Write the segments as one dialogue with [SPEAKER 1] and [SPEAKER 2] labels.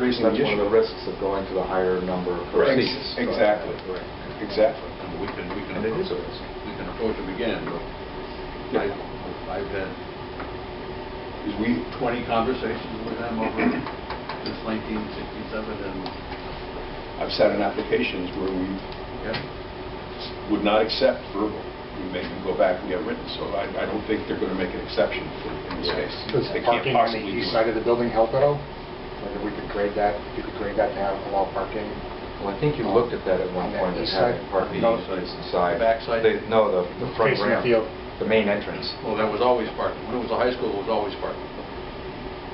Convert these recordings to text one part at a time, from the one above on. [SPEAKER 1] raising the
[SPEAKER 2] That's one of the
[SPEAKER 1] issue.
[SPEAKER 2] risks of going to the higher number of
[SPEAKER 3] Correct.
[SPEAKER 2] proceedings.
[SPEAKER 1] Ex- Exactly,
[SPEAKER 2] Right.
[SPEAKER 1] exactly.
[SPEAKER 3] And we can, we can
[SPEAKER 2] And it
[SPEAKER 3] approach
[SPEAKER 2] is a
[SPEAKER 3] them,
[SPEAKER 2] risk.
[SPEAKER 3] we can approach them again, but I, I've had
[SPEAKER 1] We,
[SPEAKER 3] 20 conversations with them over since 1967, and,
[SPEAKER 1] I've sat in applications where we
[SPEAKER 3] yeah,
[SPEAKER 1] would not accept verbal. We make them go back and get written, so I, I don't think they're going to make an exception for, in this case.
[SPEAKER 4] Does
[SPEAKER 1] They can't
[SPEAKER 4] parking on the
[SPEAKER 1] possibly do
[SPEAKER 4] east
[SPEAKER 1] it.
[SPEAKER 4] side of the building help at all? Whether we could grade that, if you could grade that to have allow parking?
[SPEAKER 2] Well, I think you looked at that at one
[SPEAKER 4] On that
[SPEAKER 2] point, as
[SPEAKER 4] east
[SPEAKER 2] having
[SPEAKER 4] side?
[SPEAKER 2] parking
[SPEAKER 3] No.
[SPEAKER 2] on the east side.
[SPEAKER 3] The back side?
[SPEAKER 2] The- No, the the front
[SPEAKER 4] Facing the
[SPEAKER 2] ramp,
[SPEAKER 4] field.
[SPEAKER 2] the main entrance.
[SPEAKER 3] well, that was always parking. When it was a high school, it was always parking.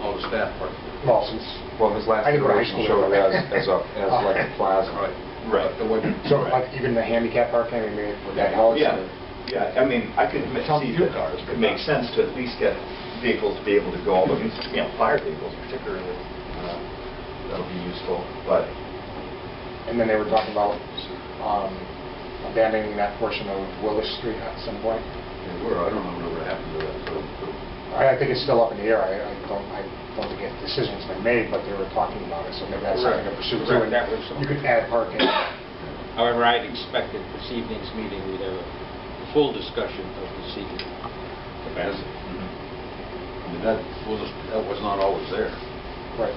[SPEAKER 3] All the staff parked.
[SPEAKER 4] Well, since,
[SPEAKER 2] Well, his last
[SPEAKER 4] I didn't go to high
[SPEAKER 2] iteration
[SPEAKER 4] school
[SPEAKER 2] showed
[SPEAKER 4] there.
[SPEAKER 2] as, as a, as like a plaza.
[SPEAKER 1] Right.
[SPEAKER 3] But It wasn't,
[SPEAKER 4] so like even the handicap parking, I mean, would that help?
[SPEAKER 5] Yeah, yeah, I mean, I could see that it makes sense to at least get vehicles to be able to go, all the way, you know, fire vehicles particularly, uh, that'll be useful, but
[SPEAKER 4] And then they were talking about um, abandoning that portion of Willis Street at some point.
[SPEAKER 3] they were, I don't know what happened to that, so, so,
[SPEAKER 4] I I think it's still up in the air, I I don't, I don't think a decision's been made, but they were talking about it, so maybe that's something to
[SPEAKER 6] Correct.
[SPEAKER 4] pursue.
[SPEAKER 6] Correct,
[SPEAKER 4] too.
[SPEAKER 6] that was-
[SPEAKER 4] You could add parking.
[SPEAKER 6] However, I'd expected this evening's meeting, we'd have a full discussion of this evening.
[SPEAKER 3] as,
[SPEAKER 5] mm-hmm.
[SPEAKER 3] I mean, that was, that was not always there.
[SPEAKER 4] Right.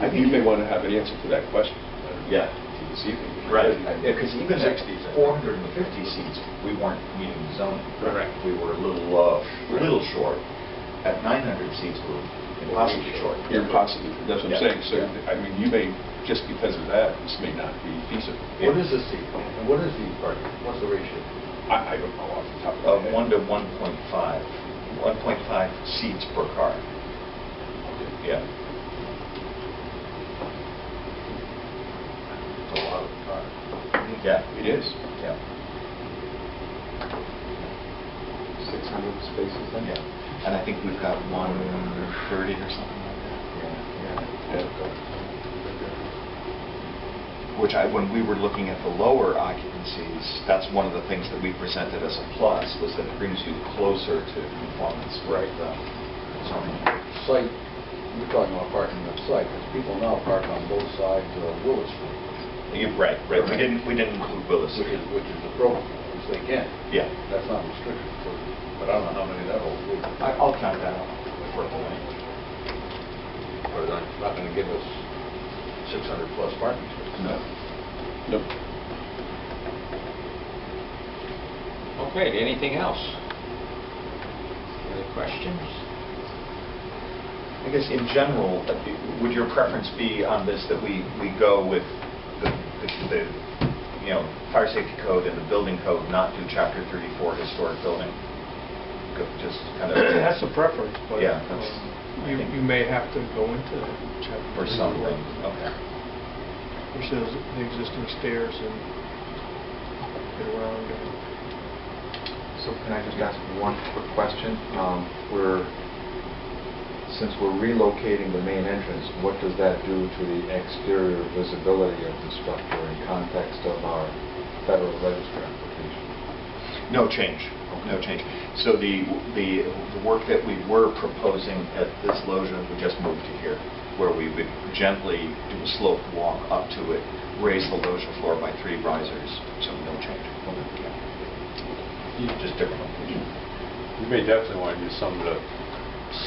[SPEAKER 1] I think you may want to have an answer to that question.
[SPEAKER 5] Yeah.
[SPEAKER 1] To This evening.
[SPEAKER 5] Right, because even at
[SPEAKER 1] 60s, I think.
[SPEAKER 5] 450 seats, we weren't meeting the zoning.
[SPEAKER 1] Correct.
[SPEAKER 5] We were a little, uh, a little short. At 900 seats, we were impossibly short.
[SPEAKER 1] Impossible, that's what I'm
[SPEAKER 5] Yeah.
[SPEAKER 1] saying. So, I mean, you may, just because of that, this may not be feasible.
[SPEAKER 3] What is the seat, and what is the parking, what's the ratio?
[SPEAKER 1] I, I don't know off the top of my
[SPEAKER 5] Of
[SPEAKER 1] head.
[SPEAKER 5] 1 Uh, to 1.5, 1.5 seats per car. Yeah.
[SPEAKER 3] It's a lot of cars.
[SPEAKER 5] Yeah,
[SPEAKER 1] It is.
[SPEAKER 5] yeah,
[SPEAKER 2] 600 spaces then?
[SPEAKER 5] yeah. And I think we've got 130 or something like that. Yeah, yeah. which I, when we were looking at the lower occupancies, that's one of the things that we presented as a plus, was that it brings you closer to conformance with
[SPEAKER 1] Right.
[SPEAKER 5] the zoning.
[SPEAKER 3] site, you're talking about parking on site, because people now park on both sides of Willis Street,
[SPEAKER 5] You- Right, right, we didn't, we didn't include Willis
[SPEAKER 3] which
[SPEAKER 5] Street.
[SPEAKER 3] is, which is appropriate, which they can.
[SPEAKER 5] Yeah.
[SPEAKER 3] That's not restricted, but I don't know how many that holds. either.
[SPEAKER 5] I- I'll count that out for a point.
[SPEAKER 3] But that's not going to give us 600 plus parking spaces.
[SPEAKER 5] No.
[SPEAKER 1] No.
[SPEAKER 6] Okay, anything else? Any questions?
[SPEAKER 5] I guess in general, uh, would your preference be on this that we, we go with the, the- the, you know, fire safety code and the building code, not do chapter 34 historic building? Go- Just kind of...
[SPEAKER 7] That's a preference, but um,
[SPEAKER 5] Yeah, that's-
[SPEAKER 7] you you may have to go into chapter...
[SPEAKER 5] Or something, okay.
[SPEAKER 7] Which is the existing stairs and get around.
[SPEAKER 2] So can I just ask one quick question? Um, We're, since we're relocating the main entrance, what does that do to the exterior visibility of the structure in context of our federal register application?
[SPEAKER 5] No change, no change. So the, the the work that we were proposing at this loggia, we just moved to here, where we would gently do a slope walk up to it, raise the loggia floor by three risers, so no change. Just different location.
[SPEAKER 8] You may definitely want to use some of the,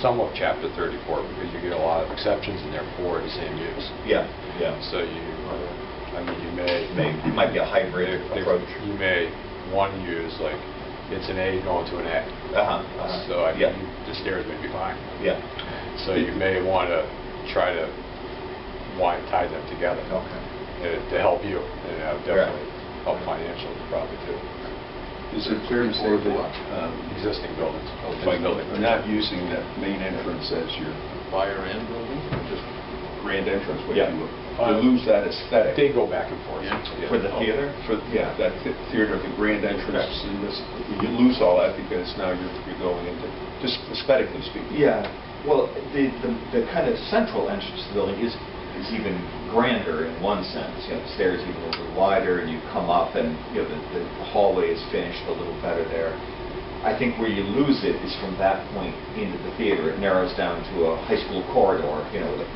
[SPEAKER 8] some of chapter 34, because you get a lot of exceptions in there for the same use.
[SPEAKER 5] Yeah, yeah.
[SPEAKER 8] So you, uh, I mean, you may...
[SPEAKER 5] May- it might be a hybrid
[SPEAKER 8] There- there-
[SPEAKER 5] approach.
[SPEAKER 8] You may, one use, like, it's an A going to an A.
[SPEAKER 5] Uh-huh, uh-huh.
[SPEAKER 8] So, I
[SPEAKER 5] Yeah.
[SPEAKER 8] mean, the stairs may be fine.
[SPEAKER 5] Yeah,
[SPEAKER 8] So you may want to try to, why tie them together.
[SPEAKER 5] okay.
[SPEAKER 8] uh, To help you, and uh,
[SPEAKER 5] Right.
[SPEAKER 8] definitely help financials probably too.
[SPEAKER 1] Is it fair to say that oh,
[SPEAKER 8] Um, Existing buildings.
[SPEAKER 1] by not using that main entrance as your
[SPEAKER 3] Fire and building, or just...
[SPEAKER 1] grand entrance, when
[SPEAKER 5] Yeah.
[SPEAKER 1] you you lose that aesthetic?
[SPEAKER 8] Uh, They go back and forth.
[SPEAKER 3] Yeah.
[SPEAKER 8] Yeah. Oh.
[SPEAKER 5] For the theater?
[SPEAKER 1] For, yeah, that thi- theater, the grand entrance, and this, you lose all that because now you're you're going into, just aesthetically speaking.
[SPEAKER 5] Yeah, well, the, the, the kind of central entrance to the building is, is even grander in one sense. You know, the stairs even a little wider, and you come up and, you know, the, the hallway is finished a little better there. I think where you lose it is from that point into the theater. It narrows down to a high school corridor, you know, with